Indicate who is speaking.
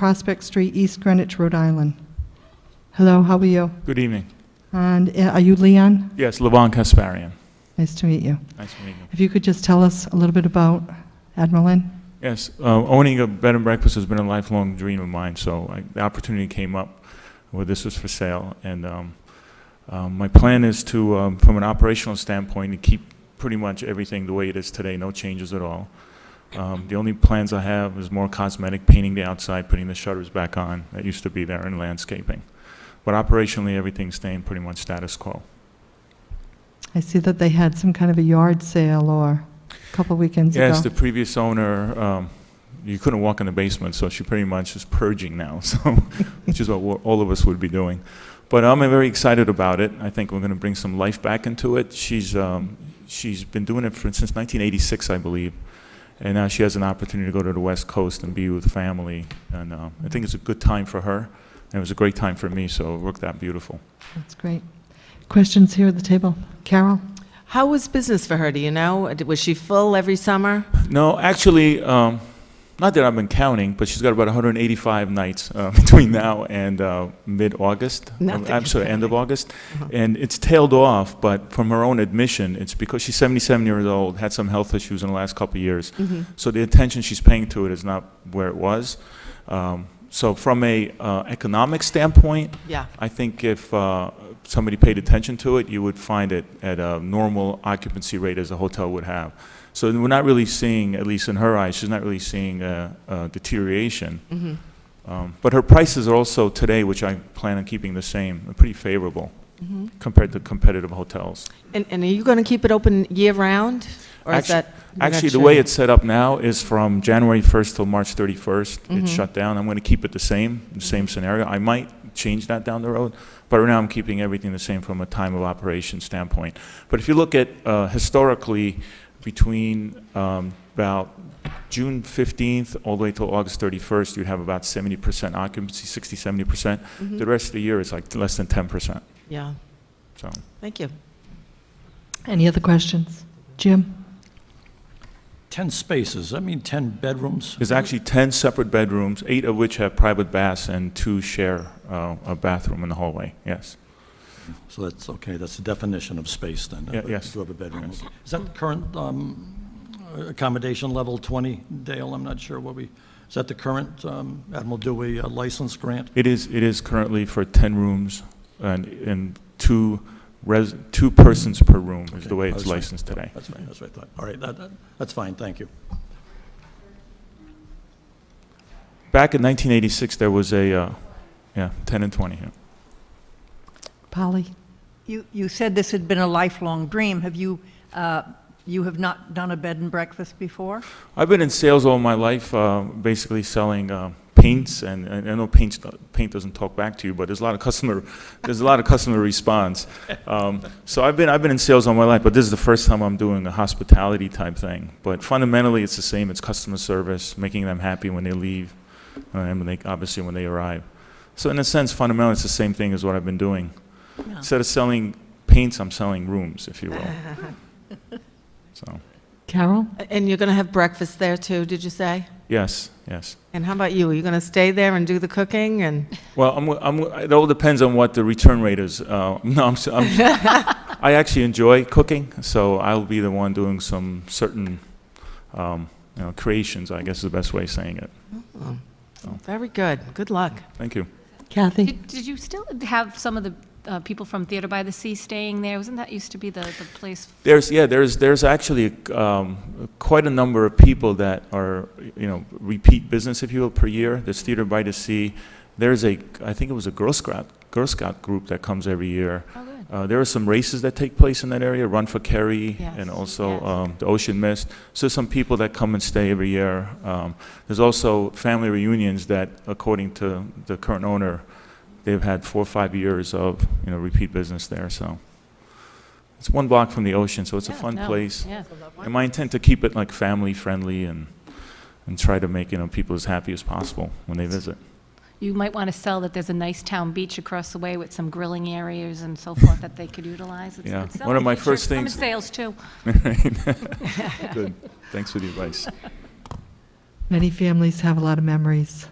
Speaker 1: Prospect Street, East Greenwich, Rhode Island. Hello, how are you?
Speaker 2: Good evening.
Speaker 1: And uh, are you Leon?
Speaker 2: Yes, Levon Kasparian.
Speaker 1: Nice to meet you.
Speaker 2: Nice to meet you.
Speaker 1: If you could just tell us a little bit about Admiral Inn?
Speaker 2: Yes, uh, owning a bed and breakfast has been a lifelong dream of mine, so I- the opportunity came up where this was for sale, and um, um, my plan is to, um, from an operational standpoint, to keep pretty much everything the way it is today, no changes at all. Um, The only plans I have is more cosmetic, painting the outside, putting the shutters back on that used to be there, and landscaping. But operationally, everything's staying pretty much status quo.
Speaker 1: I see that they had some kind of a yard sale or a couple weekends ago.
Speaker 2: Yes, the previous owner, um, you couldn't walk in the basement, so she pretty much is purging now, so, which is what we're- all of us would be doing. But I'm very excited about it. I think we're going to bring some life back into it. She's, um, she's been doing it for, since 1986, I believe, and now she has an opportunity to go to the West Coast and be with family, and uh, I think it's a good time for her, and it was a great time for me, so it worked out beautiful.
Speaker 1: That's great. Questions here at the table? Carol?
Speaker 3: How was business for her? Do you know? Was she full every summer?
Speaker 2: No, actually, um, not that I've been counting, but she's got about 185 nights uh, between now and uh, mid-August.
Speaker 3: Not
Speaker 2: Um,
Speaker 3: that
Speaker 2: I'm
Speaker 3: you're
Speaker 2: sorry, end of August.
Speaker 3: Uh-huh.
Speaker 2: And it's tailed off, but from her own admission, it's because she's 77 years old, had some health issues in the last couple of years. So the attention she's paying to it is not where it was. Um, So from a uh, economic standpoint,
Speaker 3: Yeah.
Speaker 2: I think if uh, somebody paid attention to it, you would find it at a normal occupancy rate as a hotel would have. So we're not really seeing, at least in her eyes, she's not really seeing a a deterioration.
Speaker 3: Mhm.
Speaker 2: Um, But her prices are also today, which I plan on keeping the same, are pretty favorable compared to competitive hotels.
Speaker 3: Mm-hmm. And, and are you going to keep it open year round? Or is
Speaker 2: Actu-
Speaker 3: that? you're not
Speaker 2: Actually, the
Speaker 3: sure
Speaker 2: way
Speaker 3: yet?
Speaker 2: it's set up now is from January 1st till March 31st. It's
Speaker 3: Mhm.
Speaker 2: shut down. I'm going to keep it the same, the same scenario. I might change that down the road, but right now I'm keeping everything the same from a time of operation standpoint. But if you look at uh, historically, between um, about June 15th all the way till August 31st, you'd have about 70% occupancy, 60, 70%. The rest of the year is like less than 10%.
Speaker 3: Yeah.
Speaker 2: So
Speaker 3: Thank you.
Speaker 1: Any other questions? Jim?
Speaker 4: 10 spaces, I mean 10 bedrooms?
Speaker 2: there's actually 10 separate bedrooms, eight of which have private baths, and two share uh, a bathroom in the hallway. Yes.
Speaker 4: So that's, okay, that's the definition of space then?
Speaker 2: Yeah, yes.
Speaker 4: You have a bedroom.
Speaker 2: Yes.
Speaker 4: Is that the current um, accommodation level 20, Dale? I'm not sure what we, is that the current um, Admiral Dewey uh, license grant?
Speaker 2: It is, it is currently for 10 rooms and, and two res, two persons per room is the
Speaker 4: Okay,
Speaker 2: way
Speaker 4: that's
Speaker 2: it's
Speaker 4: fine.
Speaker 2: licensed today.
Speaker 4: That's fine, that's what I thought. All right, that- that- that's fine, thank you.
Speaker 2: Back in 1986, there was a, uh, yeah, 10 and 20, yeah.
Speaker 1: Polly?
Speaker 5: You, you said this had been a lifelong dream. Have you, uh, you have not done a bed and breakfast before?
Speaker 2: I've been in sales all my life, uh, basically selling uh, paints, and, and I know paint paint doesn't talk back to you, but there's a lot of customer there's a lot of customer response. Um, so I've been I've been in sales all my life, but this is the first time I'm doing a hospitality type thing. But fundamentally, it's the same. It's customer service, making them happy when they leave, uh, and when they obviously when they arrive. So in a sense, fundamentally, it's the same thing as what I've been doing. Instead of selling paints, I'm selling rooms, if you will. so
Speaker 1: Carol?
Speaker 3: A- And you're going to have breakfast there too, did you say?
Speaker 2: yes, yes.
Speaker 3: And how about you? Are you going to stay there and do the cooking and?
Speaker 2: Well, I'm, I'm, it all depends on what the return rate is. Uh, no, I'm, s- I'm, I actually enjoy cooking, so I'll be the one doing some certain, um, you know, creations. I guess is the best way of saying it.
Speaker 3: Oh,
Speaker 2: Oh.
Speaker 3: Very good. Good luck.
Speaker 2: Thank you.
Speaker 1: Kathy?
Speaker 6: Did, did you still have some of the uh, people from Theater by the Sea staying there? Wasn't that used to be the, the place?
Speaker 2: There's yeah, there's there's actually um, quite a number of people that are you know repeat business, if you will, per year. There's Theater by the Sea. There's a I think it was a Girl Scout Girl Scout group that comes every year.
Speaker 6: Oh, good.
Speaker 2: Uh, there are some races that take place in that area, Run for Kerry,
Speaker 6: Yes,
Speaker 2: and also
Speaker 6: yes.
Speaker 2: um, the Ocean Mist. So some people that come and stay every year. Um, there's also family reunions that, according to the current owner, they've had four or five years of you know repeat business there. So it's one block from the ocean, so it's a
Speaker 6: Yeah,
Speaker 2: fun
Speaker 6: no,
Speaker 2: place.
Speaker 6: Yeah.
Speaker 2: And my intent to keep it like family friendly and and try to make you know people as happy as possible when they visit.
Speaker 6: You might want to sell that there's a nice town beach across the way with some grilling areas and so forth that they could utilize. It's a
Speaker 2: Yeah.
Speaker 6: good sell
Speaker 2: One of
Speaker 6: in
Speaker 2: my
Speaker 6: future.
Speaker 2: first
Speaker 6: I'm in
Speaker 2: things-
Speaker 6: sales too.
Speaker 2: Good. Thanks for the advice.
Speaker 1: Many families have a lot of memories.